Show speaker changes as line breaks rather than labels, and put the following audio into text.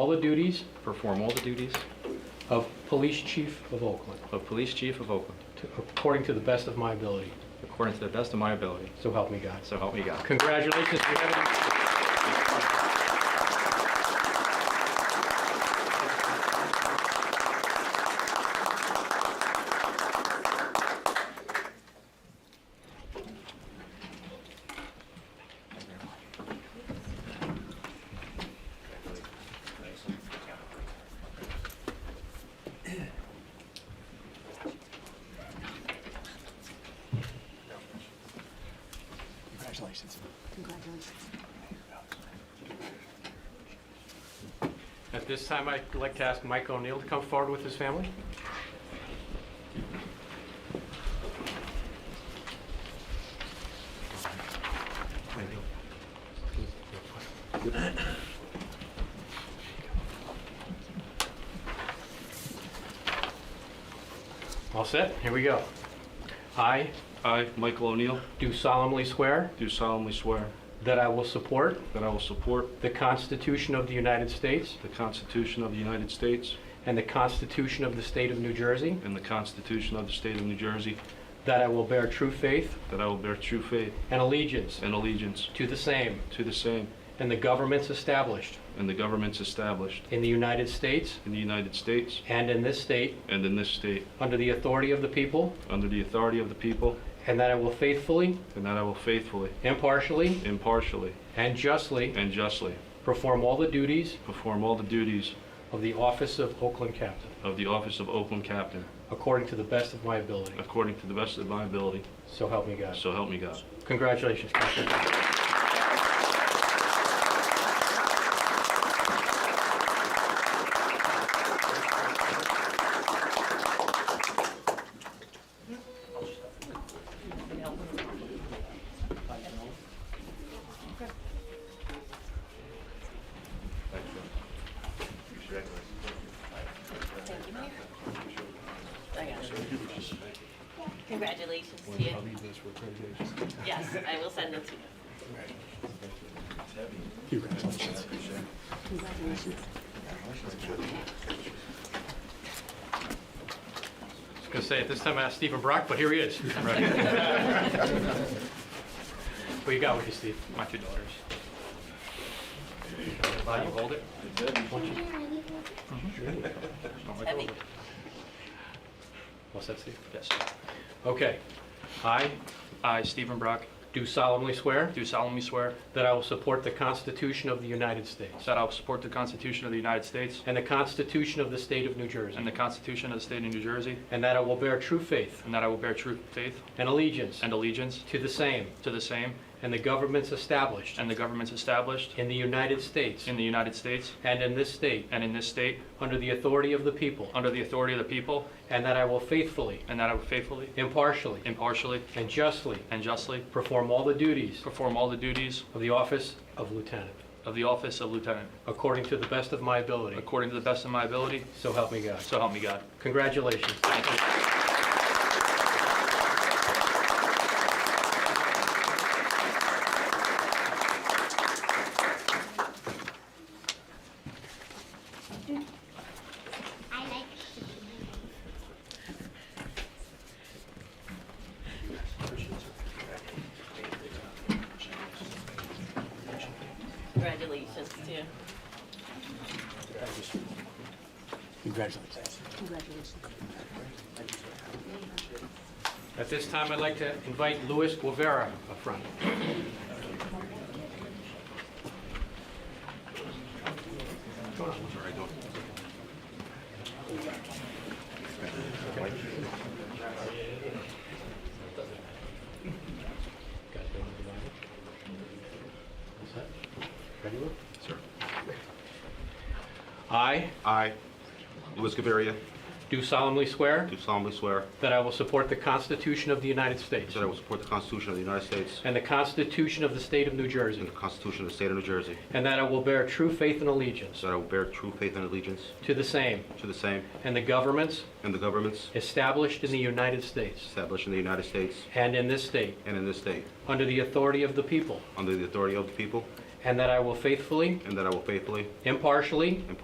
all the duties
perform all the duties
of Police Chief of Oakland,
of Police Chief of Oakland
to- according to the best of my ability.
according to the best of my ability.
So help me God.
So help me God.
Congratulations. We have it. At this time, I'd like to ask Mike O'Neill to come forward with his family. All set, here we go. I
I, Michael O'Neill,
do solemnly swear
do solemnly swear
that I will support
that I will support
the Constitution of the United States
the Constitution of the United States
and the Constitution of the State of New Jersey,
and the Constitution of the State of New Jersey,
that I will bear true faith
that I will bear true faith
and allegiance
and allegiance
to the same
to the same
and the governments established
and the governments established
in the United States
in the United States
and in this state
and in this state,
under the authority of the people,
under the authority of the people,
and that I will faithfully,
and that I will faithfully,
impartially,
impartially,
and justly
and justly
perform all the duties
perform all the duties
of the office of Oakland Captain,
of the office of Oakland Captain
according to the best of my ability.
according to the best of my ability,
So help me God.
so help me God.
Congratulations. Captain.
Congratulations to you. Yes, I will send them to you.
I was going to say, at this time, I asked Stephen Brock, but here he is. What you got with you, Steve?
My two daughters.
Uh, You hold it.
Heavy.
What's that, Steve?
Yes.
Okay. I
I, Stephen Brock,
do solemnly swear
do solemnly swear
that I will support the Constitution of the United States
that I will support the Constitution of the United States
and the Constitution of the State of New
and
Jersey,
the Constitution of the State of New Jersey,
and that I will bear true faith
and that I will bear true faith
and allegiance
and allegiance
to the same
to the same
and the governments established
and the governments established
in the United States
in the United States
and in this state
and in this state
under the authority of the people,
under the authority of the people,
and that I will faithfully,
and that I will faithfully,
impartially,
impartially,
and justly
and justly
perform all the duties
perform all the duties
of the office of lieutenant,
of the office of lieutenant
according to the best of my ability.
according to the best of my ability,
So help me God.
so help me God.
Congratulations.
I like
Congratulations to you.
At this time, I'd like to invite Luis Guevara up front. Ready, Lou?
Sir.
I
I, Louis Gaviria,
do solemnly swear
do solemnly swear
that I will support the Constitution of the United States
that I will support the Constitution of the United States
and the Constitution of the State of New Jersey,
and the Constitution of the State of New Jersey,
And that I will bear true faith and allegiance
so that I will bear true faith and allegiance
to the same
to the same
and the governments
and the governments
established in the United States
established in the United States
and in this state
and in this state,
under the authority of the people.
under the authority of the people,
And that I will faithfully,
and that I will faithfully,
impartially,